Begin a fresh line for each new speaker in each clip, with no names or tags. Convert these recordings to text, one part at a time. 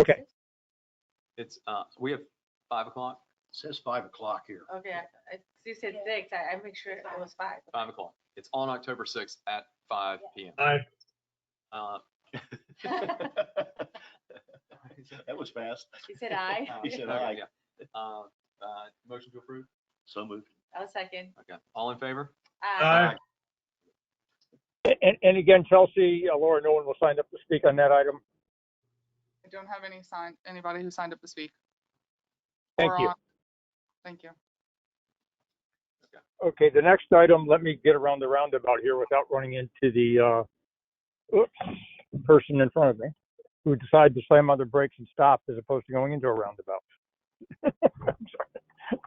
Okay.
It's, uh, we have five o'clock,
Says five o'clock here.
Okay, I- I- you said six, I, I make sure it was five.
five o'clock. It's on October sixth at five P M.
Aye.
Uh,
That was fast.
You said I,
uh,
He said
okay,
aye.
yeah. Uh, uh, motion to approve?
So moved.
I'll second.
Okay, all in favor?
Aye.
And, and again, Chelsea, uh, Laura, no one will sign up to speak on that item.
I don't have any sign, anybody who signed up to speak.
Thank
or
you.
on- Thank you.
Okay, the next item, let me get around the roundabout here without running into the, uh, oops, person in front of me who decided to slam on their brakes and stop as opposed to going into a roundabout. I'm sorry.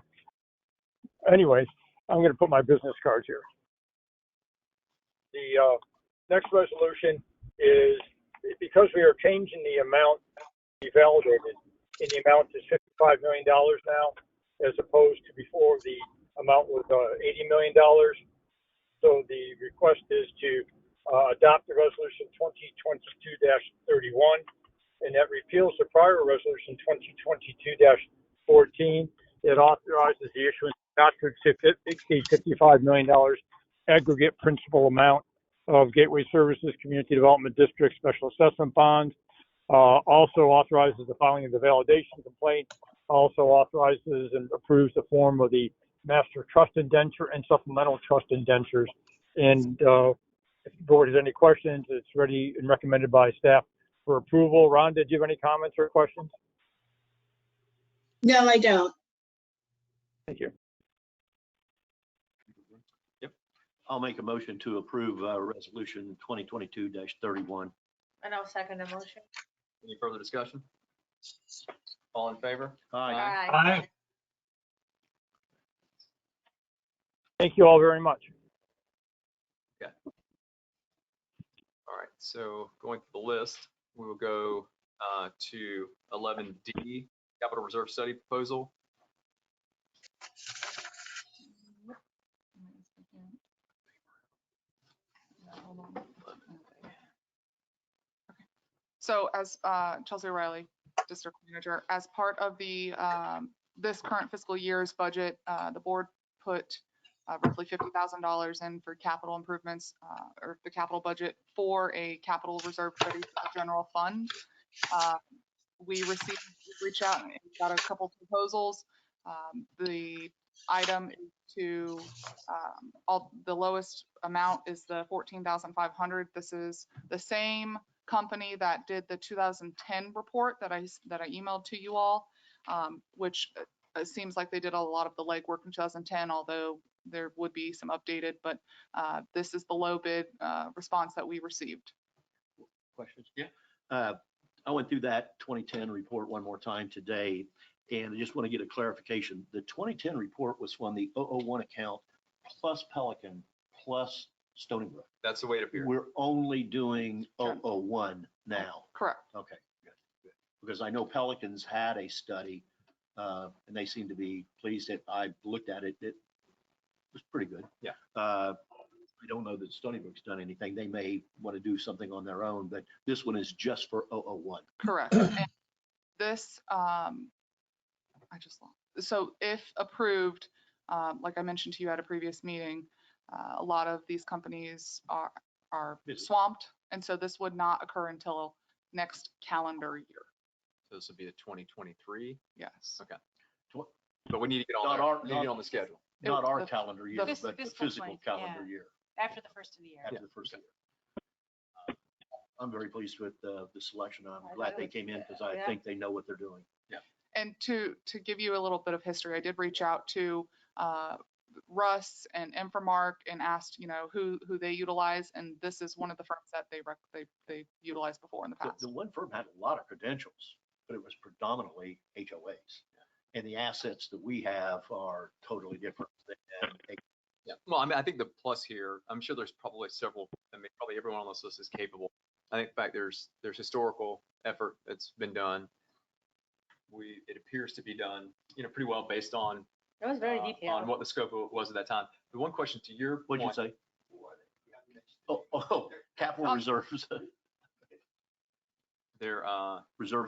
Anyways, I'm gonna put my business cards here. The, uh, next resolution is, because we are changing the amount to be validated, and the amount is fifty-five million dollars now, as opposed to before the amount was uh, $80 million. So the request is to uh, adopt the resolution 2022-31, and that repeals the prior resolution 2022-14. It authorizes the issuance not to exceed exceed $55 million aggregate principal amount of Gateway Services Community Development District Special Assessment Bonds. Uh, Also authorizes the filing of the validation complaint, also authorizes and approves the form of the master trust indenture and supplemental trust indentures. And uh, if the board has any questions, it's ready and recommended by staff for approval. Ron, did you have any comments or questions?
No, I don't.
Thank you.
I'll make a motion to approve, uh, resolution twenty twenty-two thirty-one.
And I'll second the motion.
Any further discussion? All in favor?
Aye.
Aye.
Thank you all very much.
All right, so going through the list, we will go uh, to 11D, Capital Reserve Study Proposal.
So as uh, Chelsea Riley, District Manager, as part of the, um, this current fiscal year's budget, uh, the board put uh, roughly $50,000 in for capital improvements uh, or the capital budget for a capital reserve study for the general fund. Uh, We received, we reached out and got a couple proposals. Um, The item is to, um, all, the lowest amount is the 14,500. This is the same company that did the 2010 report that I, s- that I emailed to you all, um, which uh, it seems like they did a lot of the legwork in 2010, although there would be some updated, but uh, this is the low bid uh, response that we received.
Questions? Yeah. Uh, I went through that twenty-ten report one more time today, and I just want to get a clarification. The twenty-ten report was from the 001 account plus Pelican plus Stony Brook.
That's the way it appears.
We're only doing
Sure.
001 now.
Correct.
Okay, good, good. Because I know Pelicans had a study, uh, and they seemed to be pleased that I looked at it. It was pretty good.
Yeah.
Uh, I don't know that Stony Brook's done anything. They may want to do something on their own, but this one is just for 001.
Correct. And This, um, I just, lost- so if approved, um, like I mentioned to you at a previous meeting, uh, a lot of these companies are, are
Busy.
swamped. And so this would not occur until next calendar year.
So This would be the 2023,
Yes.
but we need to get on,
Not our-
there. We need to get
not-
on the schedule.
It
Not
was
our
the-
calendar year,
fis-
but the
fiscal
physical
20,
calendar
yeah.
year,
After the first of the year.
after the first year. I'm very pleased with uh, the selection. I'm
I
glad
thought it
they
was-
came in because I
yeah.
think they know what they're doing.
And to, to give you a little bit of history, I did reach out to uh, Russ and Infomark and asked, you know, who, who they utilize. And this is one of the firms that they, rec- they, they utilized before in the
The,
past.
the one firm had a lot of credentials, but it was predominantly HOAs. And the assets that we have are totally different. than-
Yeah. Well, I mean, I think the plus here, I'm sure there's probably several, I mean, probably everyone on this list is capable. I think in fact, there's, there's historical effort that's been done. We, it appears to be done, you know, pretty well based on,
That was
uh,
very
on
detailed.
what the scope of- was at that time. The one question to your
What'd you
point,
say? Oh, oh, capital
Um,
reserves,
there, uh,
reserve